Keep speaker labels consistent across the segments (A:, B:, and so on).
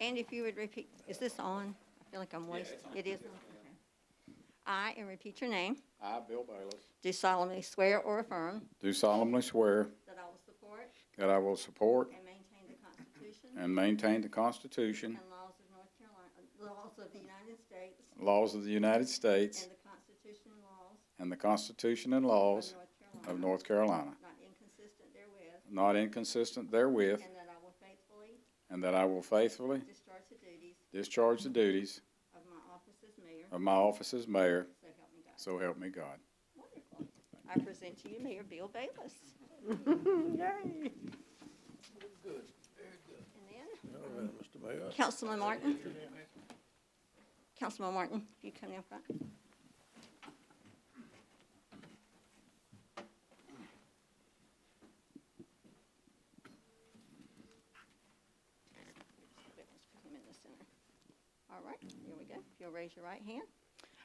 A: And if you would repeat, is this on? I feel like I'm wasting. It is on? Okay. I, and repeat your name,
B: I, Bill Bayless,
A: do solemnly swear or affirm
B: do solemnly swear
A: that I will support
B: that I will support
A: and maintain the Constitution
B: and maintain the Constitution,
A: and laws of North Carolina, laws of the United States
B: laws of the United States,
A: and the Constitution and laws
B: and the Constitution and laws of
A: Carolina,
B: North Carolina,
A: Not inconsistent therewith,
B: not inconsistent therewith,
A: and that I will faithfully
B: and that I will faithfully
A: discharge the duties
B: discharge the duties
A: of my office as mayor,
B: of my office as mayor,
A: so help me God.
B: so help me God.
A: Wonderful. I present to you Mayor Bill Bayless. And
C: All right, Mr. Mayor.
A: then Councilman Martin. Councilman Martin, if you come down front. All right, here we go. If you'll raise your right hand.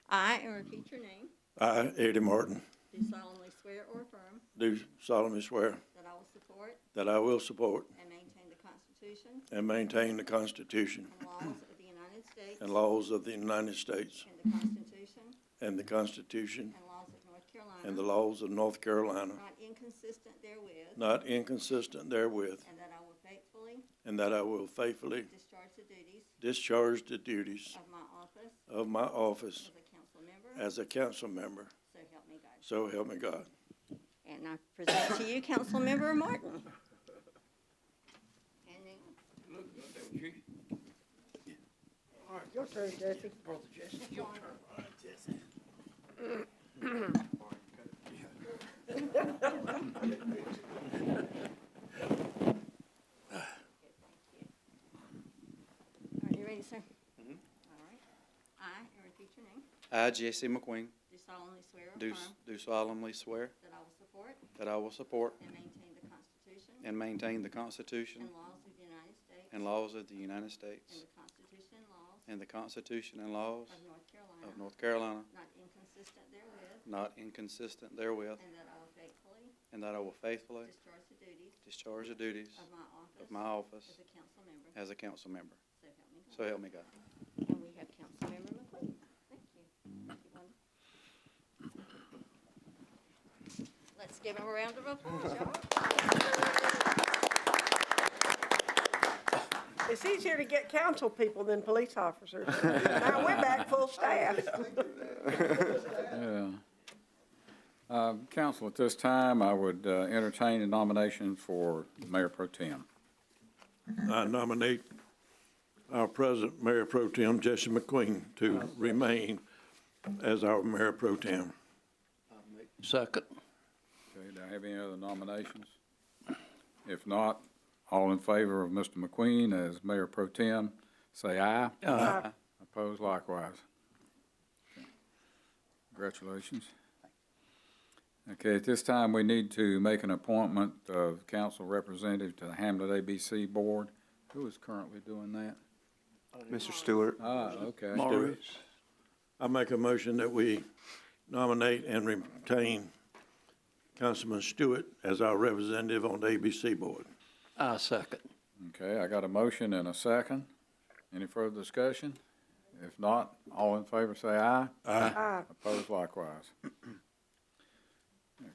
A: I, and repeat your name,
C: I, Eddie Martin,
A: do solemnly swear or affirm
C: do solemnly swear
A: that I will support
C: that I will support
A: and maintain the Constitution
C: and maintain the Constitution
A: and laws of the United States
C: and laws of the United States
A: and the Constitution
C: and the Constitution
A: and laws of North
C: and the
A: Carolina,
C: laws of North Carolina,
A: not inconsistent therewith,
C: not inconsistent therewith,
A: and that I will faithfully
C: and that I will faithfully
A: discharge the duties
C: discharge the duties
A: of my office
C: of my office
A: as a council member,
C: as a council member,
A: so help me God.
C: so help me God.
A: And I present to you Councilmember Martin. And then
D: All right, your turn, Jesse.
C: Brother Jesse,
A: your turn. Are you ready, sir? Mm-hmm. All right. I, and repeat your name,
E: I, Jesse McQueen,
A: do solemnly swear or
E: do
A: affirm
E: do solemnly swear
A: that I will support
E: that I will support
A: and maintain the Constitution
E: and maintain the Constitution
A: and laws of the United States
E: and laws of the
A: and
E: United States
A: the Constitution and laws
E: and the Constitution and laws
A: of North
E: of
A: Carolina,
E: North Carolina,
A: not inconsistent therewith,
E: not inconsistent therewith,
A: and that I will faithfully
E: and that I will faithfully
A: discharge the duties
E: discharge the duties
A: of my office
E: of my office
A: as a council member,
E: as a council member.
A: so help me God.
E: So help me God.
A: And we have Councilmember McLean. Thank you. Thank you, Wanda. Let's give him a round of applause, y'all.
D: It's easier to get council people than police officers. Now, we're back full staff.
B: Yeah. Uh, Council, at this time, I would uh, entertain a nomination for Mayor Pro Tem.
C: I nominate our present Mayor Pro Tem, Jesse McQueen, to remain as our Mayor Pro Tem. Second.
B: Okay, do I have any other nominations? If not, all in favor of Mr. McQueen as Mayor Pro Tem, say aye.
D: Aye.
B: Uh-huh. Opposed likewise. Okay. Congratulations. Okay, at this time, we need to make an appointment of council representative to the Hamlet ABC Board. Who is currently doing that?
F: Mr. Stewart.
B: Ah, okay.
C: I make a motion that we nominate and retain Councilman Stewart as our representative on the ABC Board.
F: I second.
B: Okay, I got a motion and a second. Any further discussion? If not, all in favor say aye.
D: Aye.
B: Opposed likewise.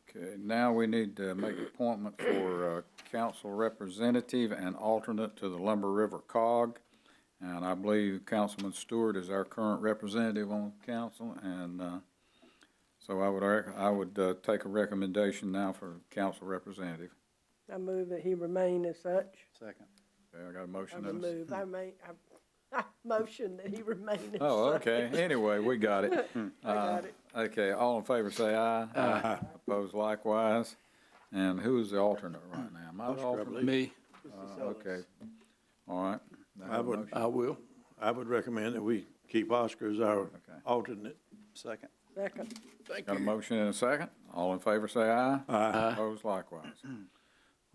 B: Okay, now we need to make appointment for uh, council representative and alternate to the Lumber River Cog. And I believe Councilman Stewart is our current representative on council, and uh, so I would, rec- I would uh, take a recommendation now for council representative.
D: I move that he remain as such.
E: Second.
B: Okay, I got a
D: I
B: motion and a second.
D: move, I may, I, I motion that he remain as such.
B: Oh, okay. Uh, Anyway, we got it.
D: I got it.
B: Okay, all in favor say aye. Aye. Opposed likewise. And who is the alternate right now? Am I the
C: Oscar, I
B: alternate?
C: believe.
F: Me,
B: Uh, Okay. All right. have
C: I
B: a
C: would-
B: motion.
F: I will.
C: I would recommend that we keep Oscar as our
B: Okay.
C: alternate.
E: Second.
D: Second,
F: Thank
B: Got a motion and a second. All in favor say aye.
C: Aye.
B: Opposed likewise.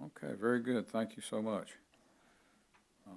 B: Okay, very good. Thank you so much. Uh,